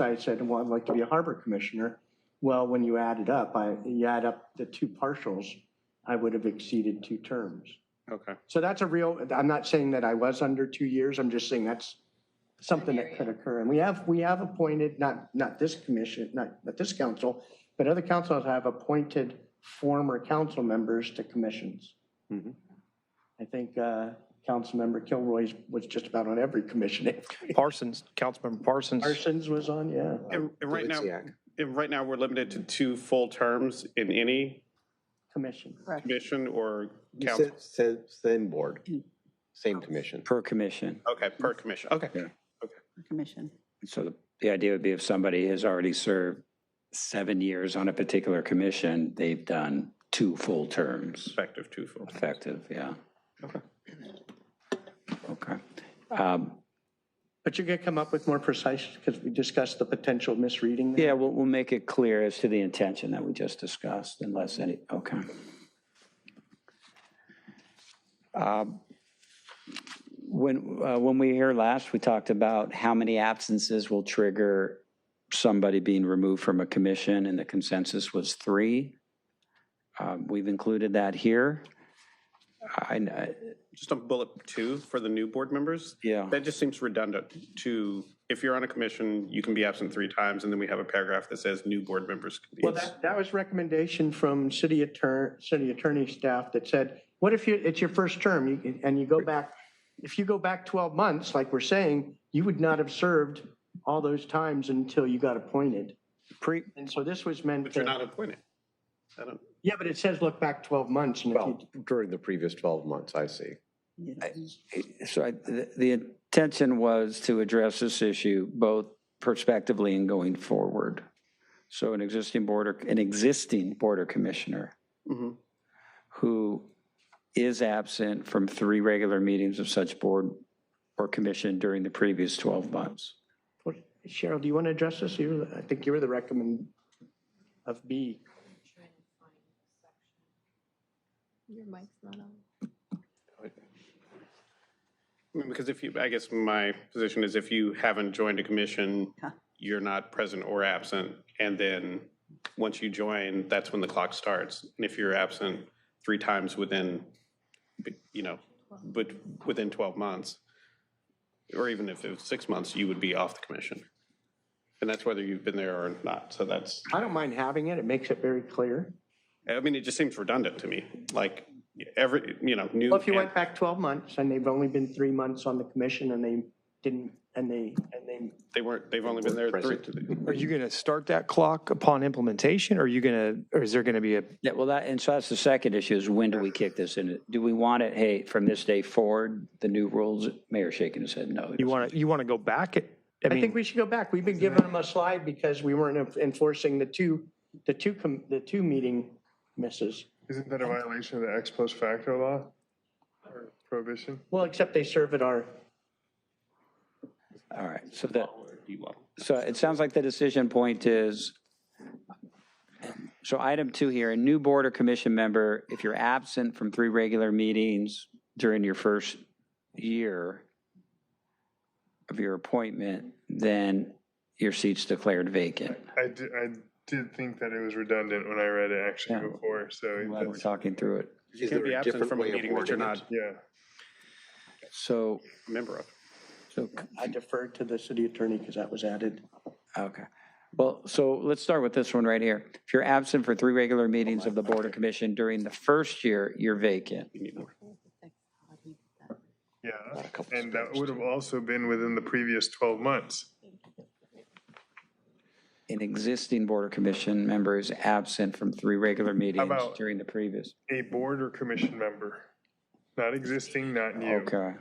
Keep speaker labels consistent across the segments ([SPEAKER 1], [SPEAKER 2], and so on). [SPEAKER 1] I said, well, I'd like to be a harbor commissioner. Well, when you add it up, I, you add up the two partials, I would have exceeded two terms.
[SPEAKER 2] Okay.
[SPEAKER 1] So that's a real, I'm not saying that I was under two years, I'm just saying that's something that could occur. And we have, we have appointed, not, not this commission, not, not this council, but other councils have appointed former council members to commissions.
[SPEAKER 2] Mhm.
[SPEAKER 1] I think, uh, Councilmember Kilroy was just about on every commission.
[SPEAKER 3] Parsons, Councilmember Parsons.
[SPEAKER 1] Parsons was on, yeah.
[SPEAKER 2] And, and right now,
[SPEAKER 4] Dovizak.
[SPEAKER 2] and right now, we're limited to two full terms in any
[SPEAKER 1] Commission.
[SPEAKER 2] commission or council.
[SPEAKER 4] Sa- sa- Same board, same commission.
[SPEAKER 5] per commission.
[SPEAKER 2] Okay, per commission. Okay.
[SPEAKER 6] Commission.
[SPEAKER 5] So the- the idea would be if somebody has already served seven years on a particular commission, they've done two full terms,
[SPEAKER 2] Effective two full. terms.
[SPEAKER 5] effective, yeah.
[SPEAKER 2] Okay.
[SPEAKER 5] Okay. Um,
[SPEAKER 1] But you're going to come up with more precise, because we discussed the potential misreading. there.
[SPEAKER 5] Yeah, we'll, we'll make it clear as to the intention that we just discussed unless any, okay. Um, When, uh, when we here last, we talked about how many absences will trigger somebody being removed from a commission and the consensus was three. Um, We've included that here. I, I-
[SPEAKER 2] Just on bullet two for the new board members,
[SPEAKER 5] yeah,
[SPEAKER 2] that just seems redundant to, if you're on a commission, you can be absent three times, and then we have a paragraph that says new board members can be.
[SPEAKER 1] Well, that, that was recommendation from city attorney, city attorney staff that said, what if you, it's your first term you- and you go back, if you go back 12 months, like we're saying, you would not have served all those times until you got appointed.
[SPEAKER 5] pre,
[SPEAKER 1] And so this was meant
[SPEAKER 2] But you're not
[SPEAKER 1] to,
[SPEAKER 2] appointed. I don't,
[SPEAKER 1] yeah, but it says look back 12 months and if you,
[SPEAKER 4] Well, during the previous 12 months, I see.
[SPEAKER 5] So I, the, the intention was to address this issue both prospectively and going forward. So an existing border, an existing border commissioner
[SPEAKER 2] Mhm.
[SPEAKER 5] who is absent from three regular meetings of such board or commission during the previous 12 months.
[SPEAKER 1] Cheryl, do you want to address this? You, I think you were the recommend of B.
[SPEAKER 6] Your mic's not on.
[SPEAKER 2] I mean, because if you, I guess my position is if you haven't joined a commission,
[SPEAKER 6] Huh.
[SPEAKER 2] you're not present or absent, and then once you join, that's when the clock starts. And if you're absent three times within, you know, but within 12 months, or even if it was six months, you would be off the commission. And that's whether you've been there or not. So that's,
[SPEAKER 1] I don't mind having it. It makes it very clear.
[SPEAKER 2] I mean, it just seems redundant to me. Like every, you know, new.
[SPEAKER 1] Well, if you went back 12 months and they've only been three months on the commission and they didn't, and they, and they
[SPEAKER 2] They weren't, they've only been there three.
[SPEAKER 3] Are you going to start that clock upon implementation or are you going to, or is there going to be a,
[SPEAKER 5] Yeah, well, that, and so that's the second issue is when do we kick this in? Do we want it, hey, from this day forward, the new rules? Mayor shaking his head, no.
[SPEAKER 3] you want to, you want to go back? at- I
[SPEAKER 1] I think
[SPEAKER 3] mean,
[SPEAKER 1] we should go back. We've been giving them a slide because we weren't en- enforcing the two, the two, com- the two meeting misses.
[SPEAKER 7] Isn't that a violation of the ex post facto law or prohibition?
[SPEAKER 1] Well, except they serve at our,
[SPEAKER 5] All right, so that, so it sounds like the decision point is, so item two here, a new board or commission member, if you're absent from three regular meetings during your first year of your appointment, then your seat's declared vacant.
[SPEAKER 7] I did, I did think that it was redundant when I read it actually
[SPEAKER 5] Yeah.
[SPEAKER 7] before, so
[SPEAKER 5] I'm Glad we're
[SPEAKER 7] that's,
[SPEAKER 5] talking through it.
[SPEAKER 4] Is
[SPEAKER 2] Can't
[SPEAKER 4] there
[SPEAKER 2] be
[SPEAKER 4] a
[SPEAKER 2] absent
[SPEAKER 4] different
[SPEAKER 2] from a
[SPEAKER 4] way of
[SPEAKER 2] meeting that you're
[SPEAKER 4] wording
[SPEAKER 2] not
[SPEAKER 4] it?
[SPEAKER 7] yeah.
[SPEAKER 5] So,
[SPEAKER 2] a member of.
[SPEAKER 5] so
[SPEAKER 1] I deferred to the city attorney because that was added.
[SPEAKER 5] Okay. Well, so let's start with this one right here. If you're absent for three regular meetings of the Board of Commission during the first year, you're vacant.
[SPEAKER 2] You need more.
[SPEAKER 7] Yeah, and that would have also been within the previous 12 months.
[SPEAKER 5] An existing Board of Commission member is absent from three regular meetings
[SPEAKER 7] about-
[SPEAKER 5] during the previous.
[SPEAKER 7] A board or commission member, not existing, not new.
[SPEAKER 5] Okay.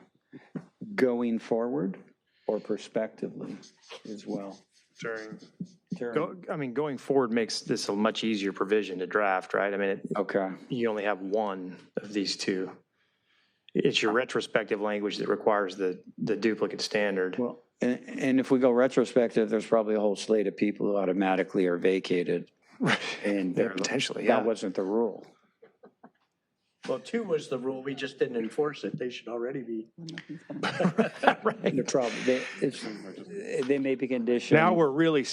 [SPEAKER 5] Going forward or prospectively as well?
[SPEAKER 7] During,
[SPEAKER 3] go- I mean, going forward makes this a much easier provision to draft, right? I mean, it-
[SPEAKER 5] Okay.
[SPEAKER 3] you only have one of these two. It's your retrospective language that requires the, the duplicate standard.
[SPEAKER 5] Well, and, and if we go retrospective, there's probably a whole slate of people who automatically are vacated. And
[SPEAKER 3] Potentially, yeah.
[SPEAKER 5] that wasn't the rule.
[SPEAKER 1] Well, two was the rule, we just didn't enforce it. They should already be.
[SPEAKER 5] They're trouble. They, it's, they may be conditioned.
[SPEAKER 8] Now we're really